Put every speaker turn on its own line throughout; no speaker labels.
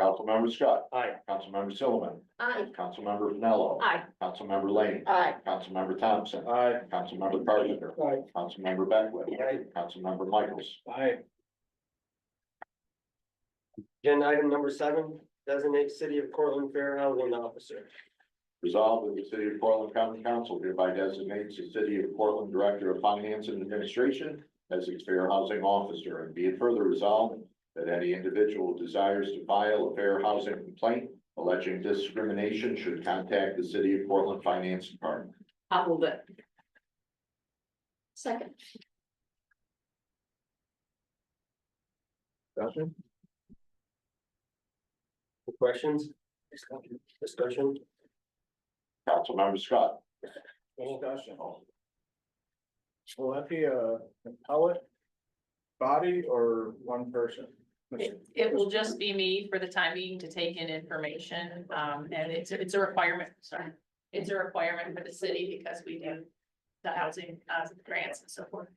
Councilmember Scott.
Aye.
Councilmember Silliman.
Aye.
Councilmember Pinello.
Aye.
Councilmember Lane.
Aye.
Councilmember Thompson.
Aye.
Councilmember Carpenter.
Aye.
Councilmember Beckwith.
Aye.
Councilmember Michaels.
Aye. Agenda item number seven, designate city of Cortland fair housing officer.
Resolved that the city of Portland County Council hereby designates the city of Portland Director of Finance and Administration as its fair housing officer, and be it further resolved that any individual who desires to file a fair housing complaint alleging discrimination should contact the city of Portland Finance Department.
I'll move it. Second.
Discussion? Questions? Discussion?
Councilmember Scott.
Discussion. Will that be a appellate body or one person?
It, it will just be me for the time being to take in information, um, and it's, it's a requirement, sorry. It's a requirement for the city because we do the housing, uh, grants and so forth.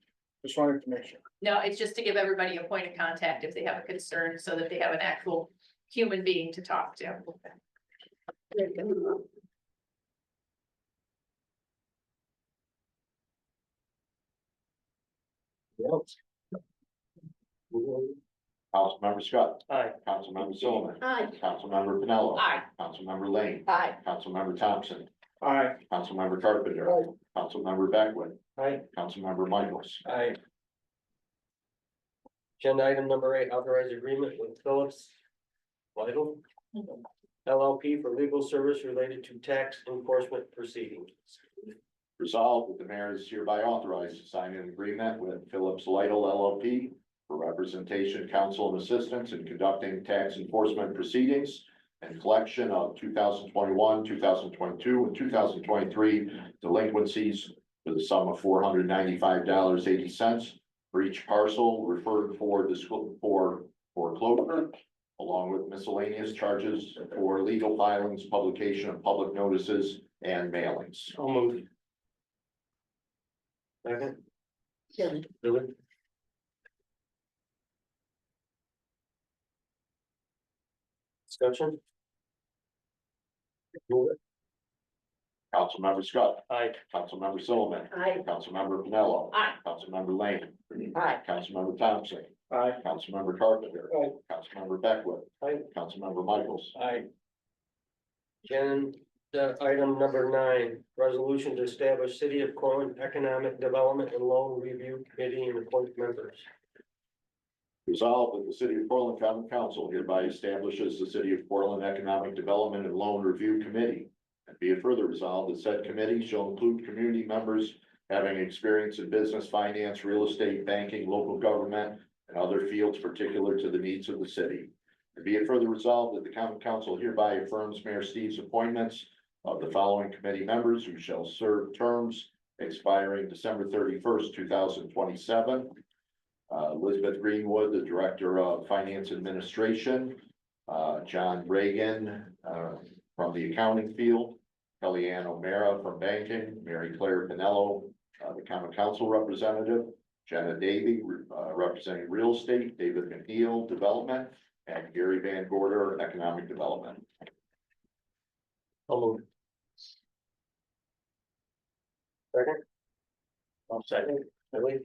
Just wanted to make sure.
No, it's just to give everybody a point of contact if they have a concern, so that they have an actual human being to talk to.
There you
Councilmember Scott.
Aye.
Councilmember Silliman.
go. Aye.
Councilmember Pinello.
Aye.
Councilmember Lane.
Aye.
Councilmember Thompson.
Aye.
Councilmember Carpenter. Councilmember Beckwith.
Aye.
Councilmember Michaels.
Aye. Agenda item number eight, authorize agreement with Phillips Vital LLP for legal service related to tax enforcement proceedings.
Resolved that the mayor is hereby authorized to sign an agreement with Phillips Lytle LLP for representation, counsel, and assistance in conducting tax enforcement proceedings and collection of two thousand twenty-one, two thousand twenty-two, and two thousand twenty-three delinquencies for the sum of four hundred ninety-five dollars eighty cents for each parcel referred for this, for foreclosure, along with miscellaneous charges for legal filings, publication of public notices, and mailings.
So moved. Second,
Billy.
Billy? Discussion? Move it.
Councilmember Scott,
Aye.
Councilmember Solomon,
Aye.
Councilmember Pinello.
Aye.
Councilmember Lane.
Aye.
Councilmember Thompson,
Aye.
Councilmember Carpenter.
Aye.
Councilmember Beckwith.
Aye.
Councilmember Michaels.
Aye. And uh, item number nine, resolution to establish City of Corwin Economic Development and Loan Review Committee and appoint members.
Resolved that the city of Portland County Council hereby establishes the city of Portland Economic Development and Loan Review Committee. And be it further resolved that said committee shall include community members having experience in business, finance, real estate, banking, local government, and other fields particular to the needs of the city. And be it further resolved that the county council hereby affirms Mayor Steve's appointments of the following committee members who shall serve terms expiring December thirty-first, two thousand twenty-seven. Uh, Elizabeth Greenwood, the Director of Finance Administration. Uh, John Reagan, uh, from the accounting field. Kellyanne O'Mara from banking, Mary Claire Pinello, uh, the Common Council Representative. Jenna Davy, uh, representing real estate, David McNeil, Development, and Gary Van Gorder, Economic Development.
I'll move. Second? I'll second. Billy?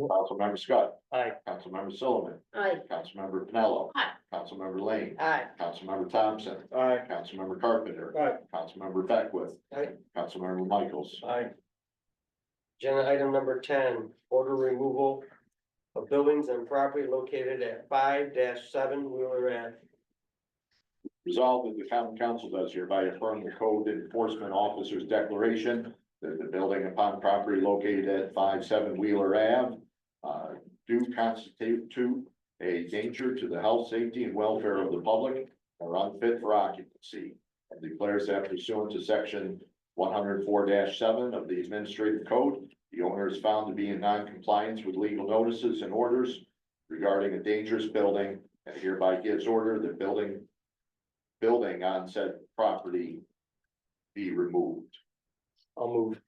Councilmember Scott.
Aye.
Councilmember Sullivan.
Aye.
Councilmember Pinello.
Aye.
Councilmember Lane.
Aye.
Councilmember Thompson.
Aye.
Councilmember Carpenter.
Aye.
Councilmember Beckwith.
Aye.
Councilmember Michaels.
Aye. Agenda item number ten, order removal of buildings and property located at five seven Wheeler Ave.
Resolved that the common council does hereby affirm the code enforcement officer's declaration that the building upon property located at five seven Wheeler Ave uh, do constitute to a danger to the health, safety, and welfare of the public or unfit for occupancy, and declares that pursuant to section one hundred four seven of the administrative code, the owner is found to be in noncompliance with legal notices and orders regarding a dangerous building, and hereby gives order that building building on said property be removed.
I'll move.